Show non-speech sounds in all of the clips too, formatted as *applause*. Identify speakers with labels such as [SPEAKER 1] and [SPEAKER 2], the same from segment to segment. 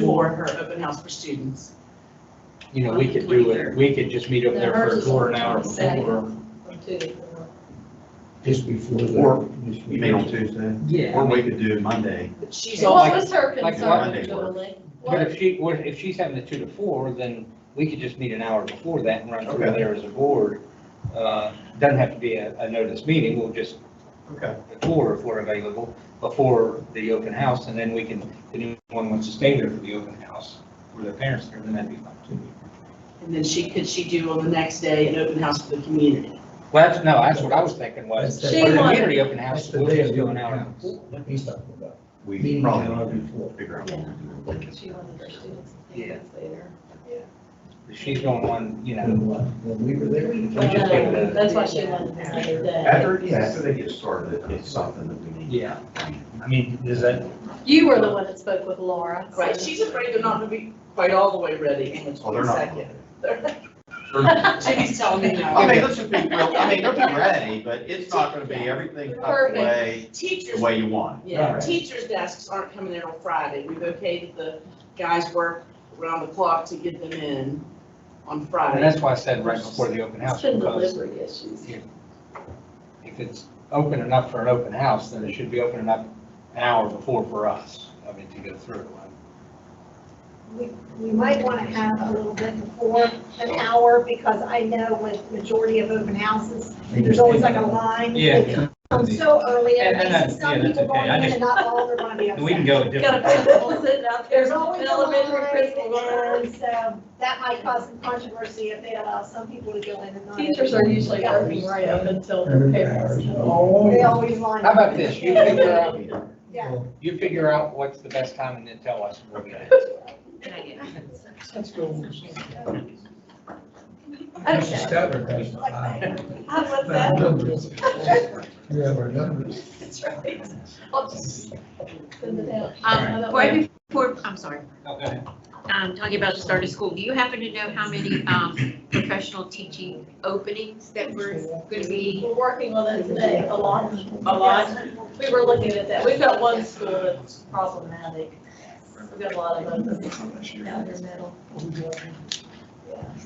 [SPEAKER 1] for her open house for students.
[SPEAKER 2] You know, we could do it, we could just meet up there for a quarter an hour before.
[SPEAKER 3] Just before the.
[SPEAKER 4] Or
[SPEAKER 3] just
[SPEAKER 4] You mean on
[SPEAKER 3] before-
[SPEAKER 4] Tuesday?
[SPEAKER 2] Yeah.
[SPEAKER 4] Or we could do Monday.
[SPEAKER 1] But she's
[SPEAKER 2] Well,
[SPEAKER 1] on,
[SPEAKER 5] What was her
[SPEAKER 2] like
[SPEAKER 5] concern,
[SPEAKER 4] Monday work.
[SPEAKER 5] Julie?
[SPEAKER 2] But
[SPEAKER 5] What,
[SPEAKER 2] if she, what- if she's having the two to four, then we could just meet an hour before that and run through
[SPEAKER 4] Okay.
[SPEAKER 2] there as a board. Uh, Doesn't have to be a, a notice meeting, we'll just,
[SPEAKER 4] Okay.
[SPEAKER 2] a tour if we're available before the open house, and then we can, if anyone wants to stay there for the open house, or their parents there, then that'd be fine too.
[SPEAKER 1] and then she, could she do on the next day an open house for the community?
[SPEAKER 2] Well, that's, no, that's what I was thinking was, for
[SPEAKER 3] That's
[SPEAKER 2] the
[SPEAKER 5] the-
[SPEAKER 2] community open
[SPEAKER 3] That's
[SPEAKER 2] house,
[SPEAKER 3] the
[SPEAKER 2] we'll
[SPEAKER 3] day
[SPEAKER 2] just
[SPEAKER 3] of
[SPEAKER 2] do
[SPEAKER 3] your
[SPEAKER 2] an hour.
[SPEAKER 3] house. Let me stop about.
[SPEAKER 4] We
[SPEAKER 3] Meeting
[SPEAKER 4] probably
[SPEAKER 3] hour
[SPEAKER 4] need
[SPEAKER 3] before.
[SPEAKER 4] to figure out.
[SPEAKER 5] what
[SPEAKER 4] what to do.
[SPEAKER 5] she wanted her students to
[SPEAKER 2] Yeah.
[SPEAKER 5] think later.
[SPEAKER 2] She's going on, you know,
[SPEAKER 3] When, uh, when we were there.
[SPEAKER 2] We just give it a-
[SPEAKER 5] Um, That's why she wanted to say that.
[SPEAKER 4] After, yeah, after they get started, it's something that we need.
[SPEAKER 2] yeah. I mean, is that,
[SPEAKER 5] You were the one that spoke with Laura. so-
[SPEAKER 1] Right,
[SPEAKER 5] *laughs*
[SPEAKER 1] she's afraid they're not gonna be quite all the way ready on the
[SPEAKER 4] Oh, they're not.
[SPEAKER 1] twenty-second. *laughs*
[SPEAKER 4] They're not.
[SPEAKER 1] Jimmy's telling me
[SPEAKER 4] I
[SPEAKER 1] now.
[SPEAKER 4] mean, let's just be real, I mean, they'll be ready, but it's not gonna be everything tucked
[SPEAKER 5] Perfect.
[SPEAKER 4] away the
[SPEAKER 1] Teachers,
[SPEAKER 4] way you want.
[SPEAKER 1] yeah,
[SPEAKER 2] Right.
[SPEAKER 1] teachers' desks aren't coming in on Friday. We've okayed the guys work around the clock to get them in on
[SPEAKER 2] and
[SPEAKER 1] Friday.
[SPEAKER 2] that's why I said right before the open
[SPEAKER 5] It's
[SPEAKER 2] house,
[SPEAKER 5] been
[SPEAKER 2] because
[SPEAKER 5] delivery issues.
[SPEAKER 2] if it's open enough for an open house, then it should be open enough an hour before for us, I mean, to go through.
[SPEAKER 6] we, we might want to have a little bit before an hour, because I know with majority of open houses, there's always like a line. They
[SPEAKER 2] Yeah,
[SPEAKER 6] come so early, and
[SPEAKER 2] And- and
[SPEAKER 6] it
[SPEAKER 2] that's-
[SPEAKER 6] makes some
[SPEAKER 2] yeah, that's
[SPEAKER 6] people
[SPEAKER 2] okay.
[SPEAKER 6] going
[SPEAKER 2] I
[SPEAKER 6] in,
[SPEAKER 2] just-
[SPEAKER 6] and not all are going to be
[SPEAKER 2] and we can
[SPEAKER 6] upset.
[SPEAKER 2] go a
[SPEAKER 5] Got
[SPEAKER 2] different.
[SPEAKER 5] a principal sitting out there,
[SPEAKER 6] There's always a line,
[SPEAKER 5] elementary principal. learning.
[SPEAKER 6] and so that might cause some controversy if they allow some people to go in and not.
[SPEAKER 5] Teachers are usually working right up until their parents.
[SPEAKER 3] Oh.
[SPEAKER 6] They always line.
[SPEAKER 2] How about this, you figure out,
[SPEAKER 6] Yeah.
[SPEAKER 2] you figure out what's the best time and then tell us. and we'll get it.
[SPEAKER 3] Let's go. She's
[SPEAKER 5] Okay,
[SPEAKER 3] stubborn, that's
[SPEAKER 6] Like
[SPEAKER 3] why. *laughs*
[SPEAKER 6] that. How about
[SPEAKER 3] My
[SPEAKER 6] that?
[SPEAKER 3] numbers. You have our numbers.
[SPEAKER 5] that's right. I'll just send it out.
[SPEAKER 2] Um,
[SPEAKER 7] Right before, I'm sorry,
[SPEAKER 2] No, go ahead.
[SPEAKER 7] um, talking about the start of school, do you happen to know how many, um, professional teaching openings that were gonna be?
[SPEAKER 5] We're working on that today, a lot.
[SPEAKER 1] A lot.
[SPEAKER 5] We were looking at that. We've got one school that's problematic. We've got a lot of them down in the middle.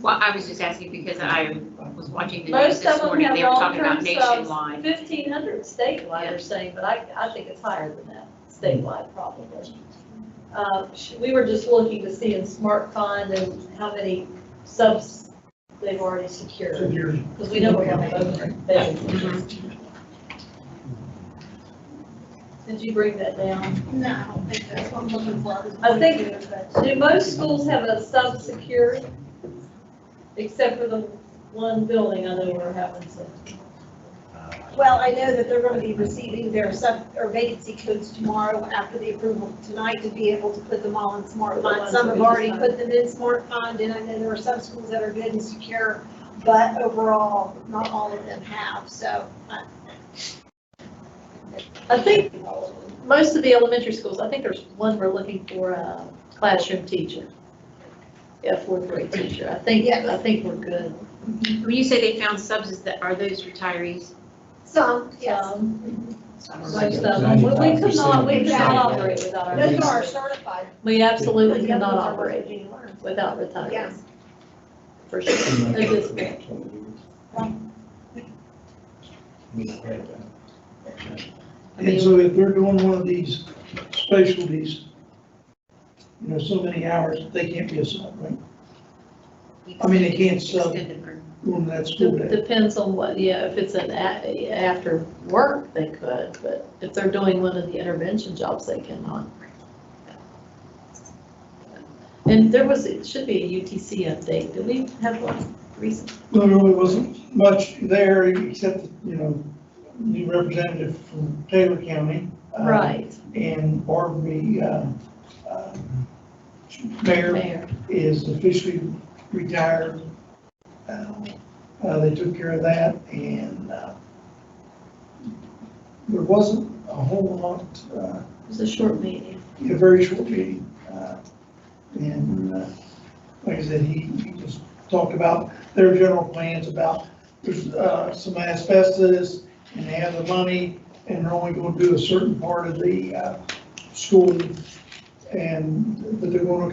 [SPEAKER 7] Well, I was just asking because I was watching the news
[SPEAKER 5] Most of
[SPEAKER 7] this
[SPEAKER 5] them
[SPEAKER 7] morning,
[SPEAKER 5] have
[SPEAKER 7] they were talking
[SPEAKER 5] long-term
[SPEAKER 7] about
[SPEAKER 5] subs,
[SPEAKER 7] nationwide.
[SPEAKER 5] fifteen hundred statewide, they're saying, but I, I think it's higher than that, statewide probably. Uh, sh- We were just looking to see in Smart Fund and how many subs they've already secured, because we know we're having open vacancies. Did you bring that down?
[SPEAKER 6] No, I don't think that's what I'm looking for.
[SPEAKER 5] I think- Do most schools have a sub secured? Except for the one building I know we're having some.
[SPEAKER 4] Uh,
[SPEAKER 6] Well, I know that they're going to be receiving their sub, or vacancy codes tomorrow after the approval tonight to be able to put them all in smart
[SPEAKER 5] The
[SPEAKER 6] fund.
[SPEAKER 5] ones
[SPEAKER 6] Some
[SPEAKER 5] that
[SPEAKER 6] have
[SPEAKER 5] we
[SPEAKER 6] already
[SPEAKER 5] decided.
[SPEAKER 6] put them in smart fund, and I know there are some schools that are good and secure, but overall, not all of them have, so. uh,
[SPEAKER 5] I think most of the elementary schools, I think there's one we're looking for a classroom teacher. Yeah, fourth grade teacher. I think, I think we're good.
[SPEAKER 7] When you say they found subs, that, are those retirees?
[SPEAKER 6] Some, yes.
[SPEAKER 5] Um, Most of them, we we could not, we could not operate without
[SPEAKER 6] Those
[SPEAKER 5] our,
[SPEAKER 6] are certified.
[SPEAKER 5] we absolutely
[SPEAKER 6] The other
[SPEAKER 5] cannot
[SPEAKER 6] ones are
[SPEAKER 5] operate
[SPEAKER 6] Virginia learned.
[SPEAKER 5] without retirees,
[SPEAKER 6] Yes.
[SPEAKER 5] for sure. At this point. I
[SPEAKER 8] And
[SPEAKER 5] mean,
[SPEAKER 8] so if they're doing one of these specialties, you know, so many hours, they can't be a sub, right? I mean, they can't sub
[SPEAKER 7] Extended for-
[SPEAKER 8] Doing that school
[SPEAKER 5] de-
[SPEAKER 8] day.
[SPEAKER 5] depends on what, yeah, if it's an a, after work, they could, but if they're doing one of the intervention jobs, they cannot. And there was, it should be a UTC update. Do we have one recent?
[SPEAKER 8] There really wasn't much there, except, you know, new representative from Taylor County. uh,
[SPEAKER 5] Right,
[SPEAKER 8] And Barbie, uh, uh, mayor
[SPEAKER 5] mayor.
[SPEAKER 8] is officially retired. Uh, uh, They took care of that, and uh, there wasn't a whole lot uh,
[SPEAKER 5] It was a short meeting.
[SPEAKER 8] a very short meeting. uh, And uh, like I said, he he just talked about their general plans about there's uh, some asbestos and they have the money and they're only going to do a certain part of the uh, school And, but they're gonna